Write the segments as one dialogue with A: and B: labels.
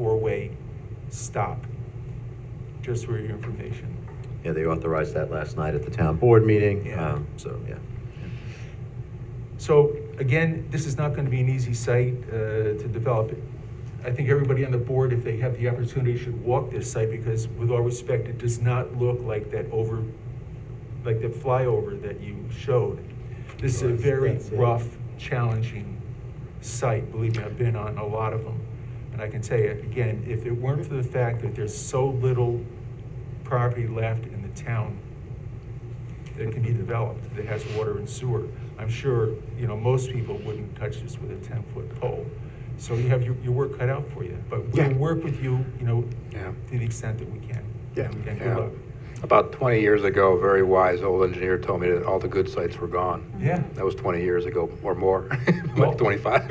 A: four-way stop, just for your information.
B: Yeah, they authorized that last night at the town board meeting,
A: Yeah.
B: um, so, yeah.
A: So again, this is not going to be an easy site uh, to develop. I think everybody on the board, if they have the opportunity, should walk this site because with all respect, it does not look like that over, like that flyover that you showed. This is a
C: Right,
A: very
C: that's it.
A: rough, challenging site, believe me, I've been on a lot of them. And I can tell you, again, if it weren't for the fact that there's so little property left in the town, that can be developed that has water and sewer. I'm sure, you know, most people wouldn't touch this with a ten-foot pole. So you have your, your work cut out for you, but we'll
C: Yeah.
A: work with you, you know,
C: Yeah.
A: to the extent that we can.
C: Yeah.
A: And good
D: Yeah.
A: luck.
D: About 20 years ago, a very wise old engineer told me that all the good sites were gone.
A: Yeah,
D: That was 20 years ago or more,
A: Well-
D: like 25.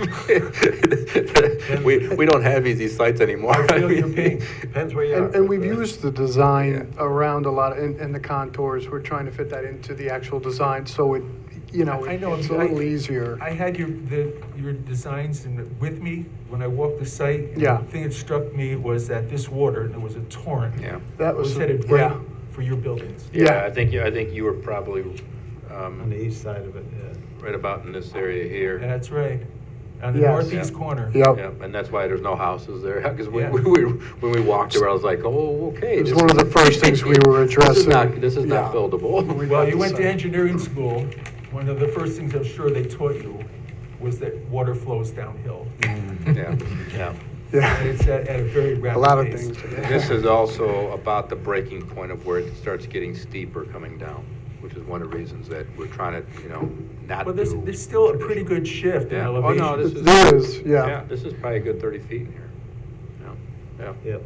D: We, we don't have easy sites anymore.
A: I feel your pain.
E: Depends where you are.
C: And, and we've used the design
D: Yeah.
C: around a lot, and, and the contours, we're trying to fit that into the actual design, so it, you know,
A: I know,
C: it's a
A: I-
C: little easier.
A: I had your, the, your designs in, with me when I walked the site. and
C: Yeah.
A: The thing that struck me was that this water, and it was a torrent.
D: Yeah.
C: That
A: Was
C: was,
A: headed right
C: yeah,
A: for your buildings.
C: Yeah.
D: Yeah, I think, you- I think you were probably um,
E: On the east side of it, yeah.
D: right about in this area here.
A: That's right, on the
C: Yes.
A: northeast
D: Yeah.
A: corner.
C: yep.
D: Yeah, and that's why there's no houses there, because
A: Yeah.
D: when we, we- when we walked there, I was like, oh, okay.
C: It was
D: this
C: one of
D: is-
C: the first things we were
D: This is not,
C: addressing.
D: this is not
C: Yeah.
D: buildable.
A: Well,
C: got
A: you
C: the
A: went to
C: site.
A: engineering school, one of the first things I'm sure they taught you was that water flows downhill.
D: Mm. Yeah, yeah.
A: And
C: Yeah,
A: it's at, at a very rapid pace.
C: a lot of things.
D: This is also about the breaking point of where it starts getting steeper coming down, which is one of the reasons that we're trying to, you know, not do.
A: But there's, there's still a pretty good shift in
D: Yeah. Oh,
A: elevation.
D: no, this is.
C: There is, yeah.
D: This is probably a good thirty feet in here. Yeah, yeah.
E: Yep.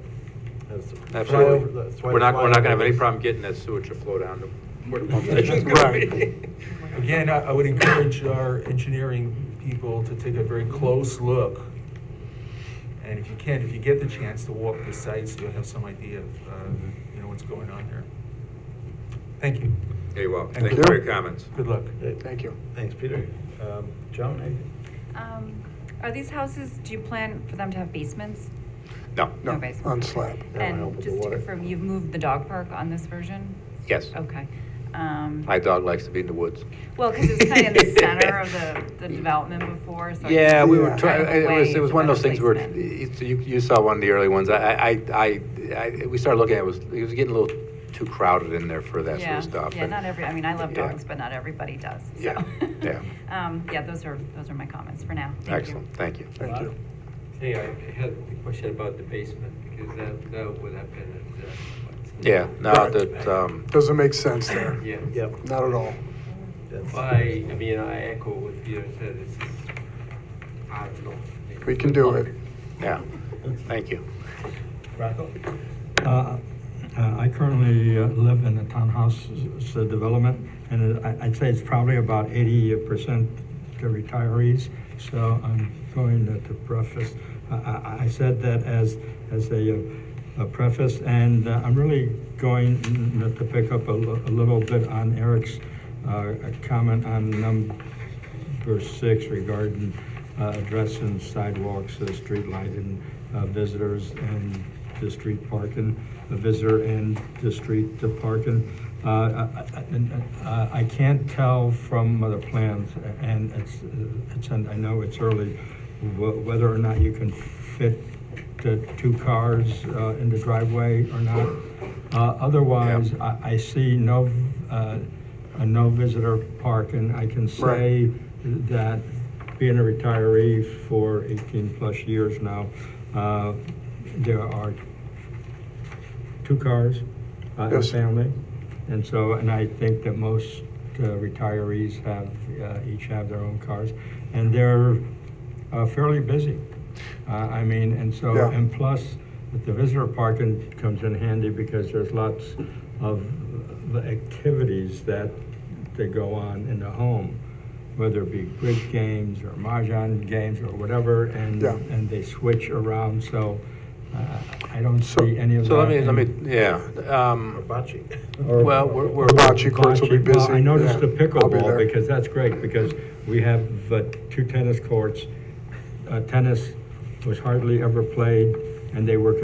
E: That's the-
D: Absolutely.
E: That's why
D: We're not,
E: the
D: we're not gonna have any
E: flyover-
D: problem getting that sewage to flow down to where the pump station's gonna be.
A: Again, I, I would encourage our engineering people to take a very close look. And if you can, if you get the chance to walk the sites, you'll have some idea of, uh, you know, what's going on there. Thank you.
D: Hey, well,
A: Thank
D: thank you for
C: you.
D: your comments.
A: Good luck.
C: Thank you.
E: Thanks, Peter. Um, Joan, anything?
F: Um, Are these houses, do you plan for them to have basements?
D: No,
C: No,
F: basement.
C: on slab.
E: No, I don't
F: And
E: put the
F: just to
E: water.
F: confirm, you've moved the dog park on this version?
D: yes.
F: Okay. Um,
D: My dog likes to be in the woods.
F: Well, because it's kind of in the center of the, the development before, so. I
D: Yeah, we were
C: Yeah.
D: trying,
F: Kind of
D: it was,
F: away
D: it was one of
F: from
D: those things where,
F: replacement.
D: it's- you, you saw one of the early ones, I, I, I, I, we started looking, at it was, it was getting a little too crowded in there for that sort
F: Yeah,
D: of stuff.
F: Yeah,
D: and-
F: not every, I mean, I love
D: Yeah.
F: dogs, but not everybody does, so.
D: Yeah, yeah.
F: Um, yeah, those are, those are my comments for now. Thank you.
D: Excellent, thank you.
C: Thank you.
G: Hey, I had a question about the basement, because that, that would have been a uh, disaster.
D: Yeah, no,
C: Right.
D: that, um,
C: Doesn't make sense there.
G: Yeah,
E: Yep.
C: Not at all.
E: that's-
G: I, I mean, I echo what Peter said, this is, I don't know.
C: We can do it.
D: yeah, thank you.
E: Rocco?
H: Uh, uh, I currently uh, live in a townhouse s- s- development, and it- I- I'd say it's probably about eighty percent to retirees, so I'm going to- to preface, I- I I said that as, as a uh, a preface, and uh, I'm really going n- to pick up a li- a little bit on Eric's uh, comment on um, num- verse six regarding uh, addressing sidewalks, uh, street lighting, uh, visitors, and the street parking, the visitor and the street parking. Uh, I I- uh, I- I can't tell from the plans, and it's, uh, it's, and I know it's early, wh- whether or not you can fit the two cars uh, in the driveway or not. Uh, Otherwise, I I see no, uh, a no visitor parking. I can say that being a retiree for 18-plus years now, uh, there are two cars uh, in the
C: Yes.
H: family. And so, and I think that most uh, retirees have, uh, each have their own cars. And they're uh, fairly busy. Uh, I mean, and so,
C: Yeah.
H: and plus, the visitor parking comes in handy because there's lots of the activities that, that go on in the home, whether it be bridge games or mahjong games or whatever, and,
C: Yeah.
H: and they switch around, so uh, I don't
C: So-
H: see any of that.
D: So let me, let
H: in-
D: me, yeah, um,
E: Bocce.
H: or-
D: well, we're, we're.
C: Bocce courts will be
H: Bocce. Well,
C: busy.
H: I noticed the
C: Yeah, I'll be
H: pickleball,
C: there.
H: because that's great, because we have uh, two tennis courts. Uh, Tennis was hardly ever played and they work